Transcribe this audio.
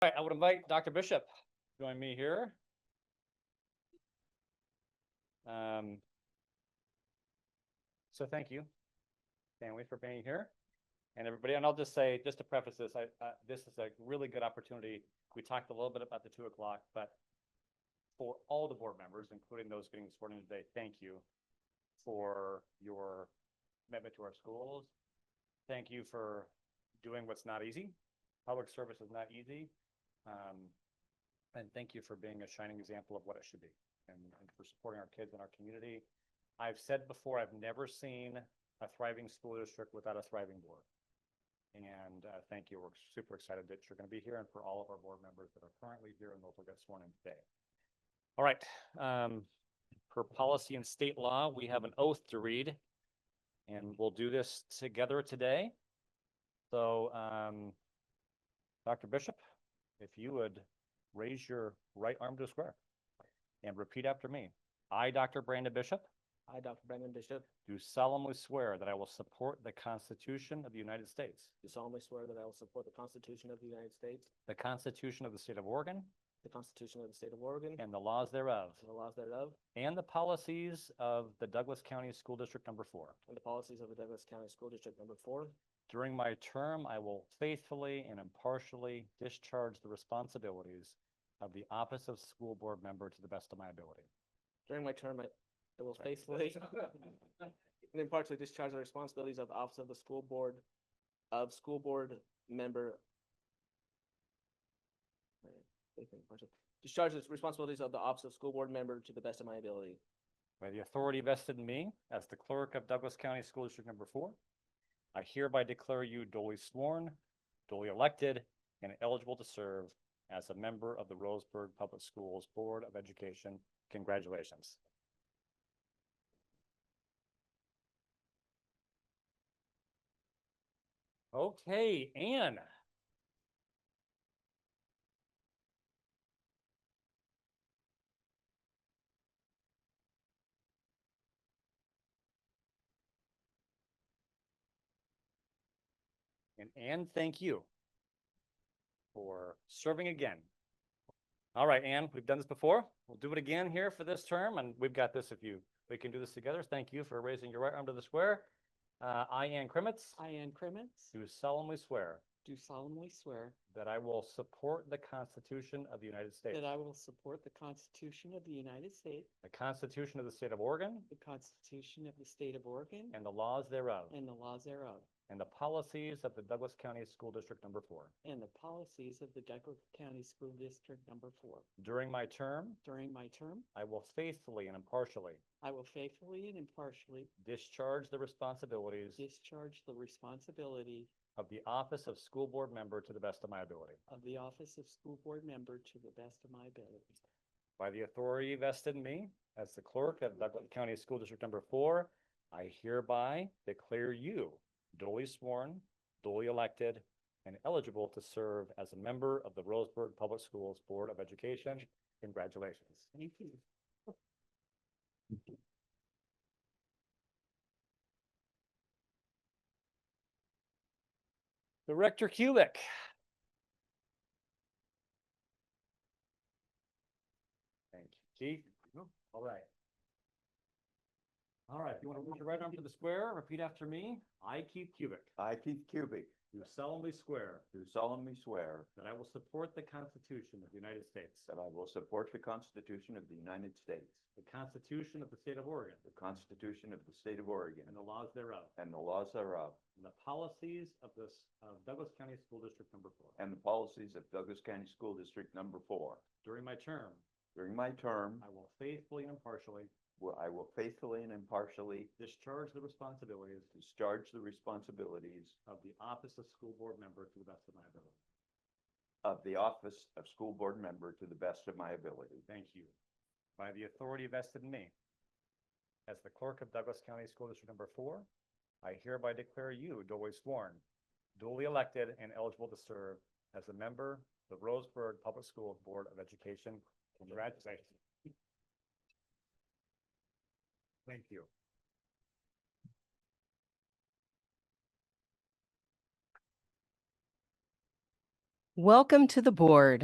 would invite Dr. Bishop to join me here. Um, so thank you, Stanley, for being here. And everybody, and I'll just say, just to preface this, I, uh, this is a really good opportunity. We talked a little bit about the two o'clock, but for all the board members, including those getting sworn in today, thank you for your commitment to our schools. Thank you for doing what's not easy. Public service is not easy. Um, and thank you for being a shining example of what it should be and, and for supporting our kids and our community. I've said before, I've never seen a thriving school district without a thriving board. And, uh, thank you. We're super excited that you're going to be here and for all of our board members that are currently here and those will get sworn in today. All right, um, per policy and state law, we have an oath to read. And we'll do this together today. So, um, Dr. Bishop, if you would raise your right arm to the square and repeat after me. I, Dr. Brandon Bishop, I, Dr. Brandon Bishop, do solemnly swear that I will support the Constitution of the United States, do solemnly swear that I will support the Constitution of the United States, the Constitution of the State of Oregon, the Constitution of the State of Oregon, and and the laws thereof, the laws thereof, and the policies of the Douglas County School District Number Four. and the policies of the Douglas County School District Number Four. During my term, I will faithfully and impartially discharge the responsibilities of the office of school board member to the best of my ability. During my term, I I will faithfully and impartially discharge the responsibilities of the Office of the School Board of School Board Member. Discharge the responsibilities of the Office of School Board Member to the best of my ability. By the authority vested in me as the clerk of Douglas County School District Number Four, I hereby declare you duly sworn, duly elected, and eligible to serve as a member of the Roseburg Public Schools Board of Education. Congratulations. Okay, Anne. And Anne, thank you for serving again. All right, Anne, we've done this before. We'll do it again here for this term, and we've got this if you, we can do this together. Thank you for raising your right arm to the square. Uh, I, Anne Crimmets, I, Ann Crimmins, do solemnly swear do solemnly swear that I will support the Constitution of the United States, that I will support the Constitution of the United States, the Constitution of the State of Oregon, the Constitution of the State of Oregon, and the laws thereof, and the laws thereof, and the policies of the Douglas County School District Number Four. and the policies of the Douglas County School District Number Four. During my term, During my term, I will faithfully and impartially I will faithfully and impartially discharge the responsibilities discharge the responsibility of the office of school board member to the best of my ability. of the office of school board member to the best of my ability. By the authority vested in me as the clerk of Douglas County School District Number Four, I hereby declare you duly sworn, duly elected, and eligible to serve as a member of the Roseburg Public Schools Board of Education. Congratulations. Thank you. Director Kulik. Thank you, Chief. All right. All right, you want to raise your right arm to the square, repeat after me. I, Keith Kubik, I, Keith Cubic, do solemnly swear do solemnly swear that I will support the Constitution of the United States, that I will support the Constitution of the United States, the Constitution of the State of Oregon, the Constitution of the State of Oregon, and the laws thereof, and the laws thereof, and the policies of this, of Douglas County School District Number Four. and the policies of Douglas County School District Number Four. During my term, During my term, I will faithfully and impartially will- I will faithfully and impartially discharge the responsibilities discharge the responsibilities of the office of school board member to the best of my ability. of the office of school board member to the best of my ability. Thank you. By the authority vested in me, as the clerk of Douglas County School District Number Four, I hereby declare you duly sworn, duly elected, and eligible to serve as a member of the Roseburg Public Schools Board of Education. Congratulations. Thank you. Welcome to the board.